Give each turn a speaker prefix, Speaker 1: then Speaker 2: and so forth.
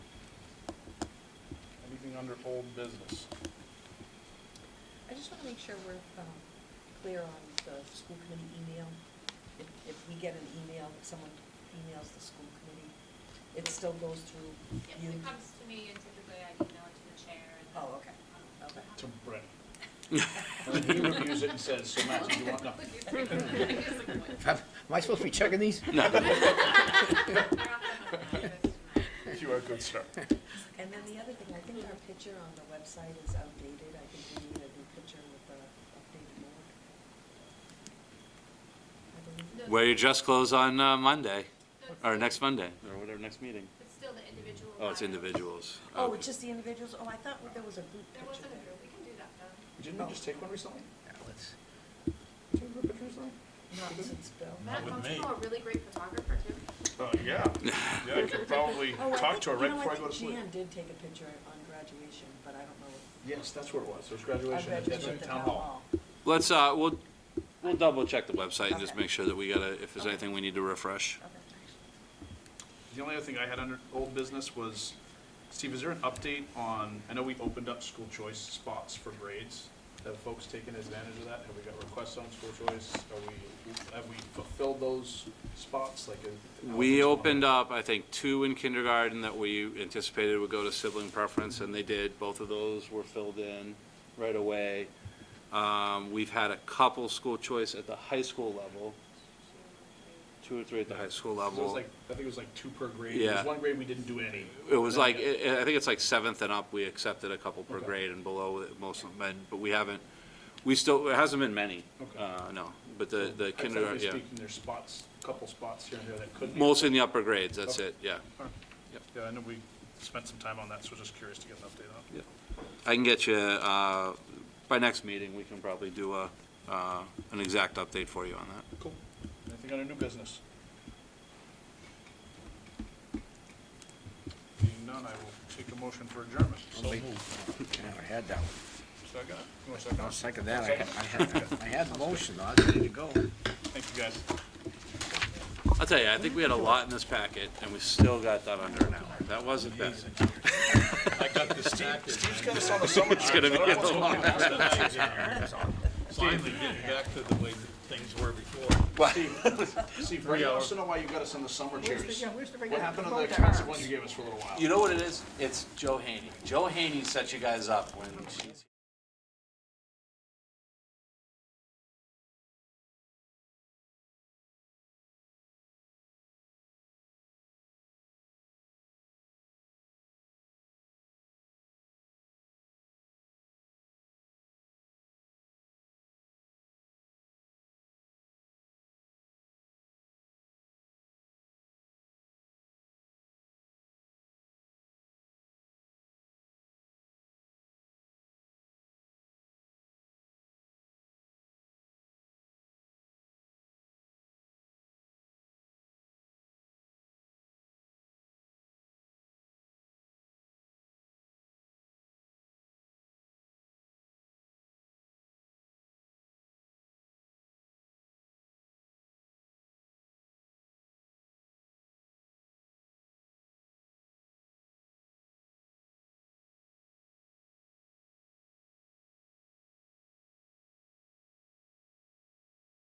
Speaker 1: under old business.
Speaker 2: I just want to make sure we're um, clear on the school committee email. If, if we get an email, if someone emails the school committee, it still goes through
Speaker 3: If
Speaker 2: you?
Speaker 3: it comes to me, and typically I email it to the chair and then.
Speaker 2: Oh, okay, okay.
Speaker 1: To Brett. And then he reviews it and says, so Matt, do you want, no.
Speaker 4: Am I supposed to be checking these?
Speaker 5: No.
Speaker 1: You are a good sir.
Speaker 2: And then the other thing, I think our picture on the website is outdated. I think we need a new picture with the updated look. I believe.
Speaker 5: Wear your dress clothes on uh, Monday, or
Speaker 3: Our
Speaker 5: next Monday, or whatever, next meeting.
Speaker 3: It's still the individual.
Speaker 5: Oh, it's
Speaker 3: items.
Speaker 5: individuals.
Speaker 2: Oh,
Speaker 5: Okay.
Speaker 2: it's just the individuals? Oh, I thought there was a group
Speaker 3: There wasn't
Speaker 2: picture
Speaker 3: a
Speaker 2: there.
Speaker 3: group, we can do that though.
Speaker 1: Didn't we just take one recently?
Speaker 4: Yeah, let's-
Speaker 1: Did you have a picture recently?
Speaker 2: Not since Bill.
Speaker 3: Matt
Speaker 1: with
Speaker 3: Constable, a really great photographer too.
Speaker 1: Uh, yeah, yeah, I could probably
Speaker 2: Oh, I
Speaker 1: talk
Speaker 2: think-
Speaker 1: to her
Speaker 2: you
Speaker 1: right
Speaker 2: know,
Speaker 1: before I go to
Speaker 2: I
Speaker 1: sleep.
Speaker 2: think Jan did take a picture on graduation, but I don't know. if-
Speaker 1: Yes, that's where it was, it was
Speaker 2: I
Speaker 1: graduation, at- that's
Speaker 2: graduated
Speaker 1: at
Speaker 2: at
Speaker 1: Town Hall.
Speaker 5: Let's, uh, we'll, we'll double check the website and just
Speaker 2: Okay.
Speaker 5: make sure that we gotta, if there's anything we need to refresh.
Speaker 1: The only other thing I had under old business was, Steve, is there an update on, I know we opened up school choice spots for grades. Have folks taken advantage of that? Have we got requests on school choice? Are we, have we fulfilled those spots like? uh,
Speaker 5: We
Speaker 1: how much
Speaker 5: opened
Speaker 1: longer?
Speaker 5: up, I think, two in kindergarten that we anticipated would go to sibling preference, and they did. Both of those were filled in right away. Um, We've had a couple school choice at the high school level, two or three at the high school
Speaker 1: So It was
Speaker 5: level.
Speaker 1: like, I think it was like two per grade. There
Speaker 5: Yeah.
Speaker 1: was one grade we didn't do any.
Speaker 5: It was like, eh, I I think it's like seventh and up, we accepted a couple per
Speaker 1: Okay.
Speaker 5: grade and below, it, most of them, and- but we haven't, we still, it hasn't been many.
Speaker 1: Okay.
Speaker 5: Uh, no, but the, the
Speaker 1: I
Speaker 5: kindergarten,
Speaker 1: think
Speaker 5: yeah.
Speaker 1: speaking, there's spots, couple spots here and there that could be.
Speaker 5: Mostly in the upper grades, that's
Speaker 1: Okay.
Speaker 5: it, yeah. Yep.
Speaker 1: Yeah, I know we spent some time on that, so just curious to get an update on. it.
Speaker 5: I can get you, uh, by next meeting, we can probably do a, uh, an exact update for you on that.
Speaker 1: Cool. Anything on a new business? Being none, I will take a motion for adjournment. So
Speaker 4: I'll make- Never had that one.
Speaker 1: Second. You want a second?
Speaker 4: I'll second that. I ha- I had, I had the motion. I was ready to go.
Speaker 1: Thank you, guys.
Speaker 5: I'll tell you, I think we had a lot in this packet, and we still got that under an hour. That wasn't bad.
Speaker 6: I got distracted. man.
Speaker 1: It's on the summer
Speaker 5: It's gonna be a long,
Speaker 6: Finally getting back to the way things were before.
Speaker 1: Steve, Brady wants to know why you got us in the summer chairs. What happened to the expensive ones you gave us for a little while?
Speaker 5: You know what it is? It's Joe Haney. Joe Haney set you guys up when she's.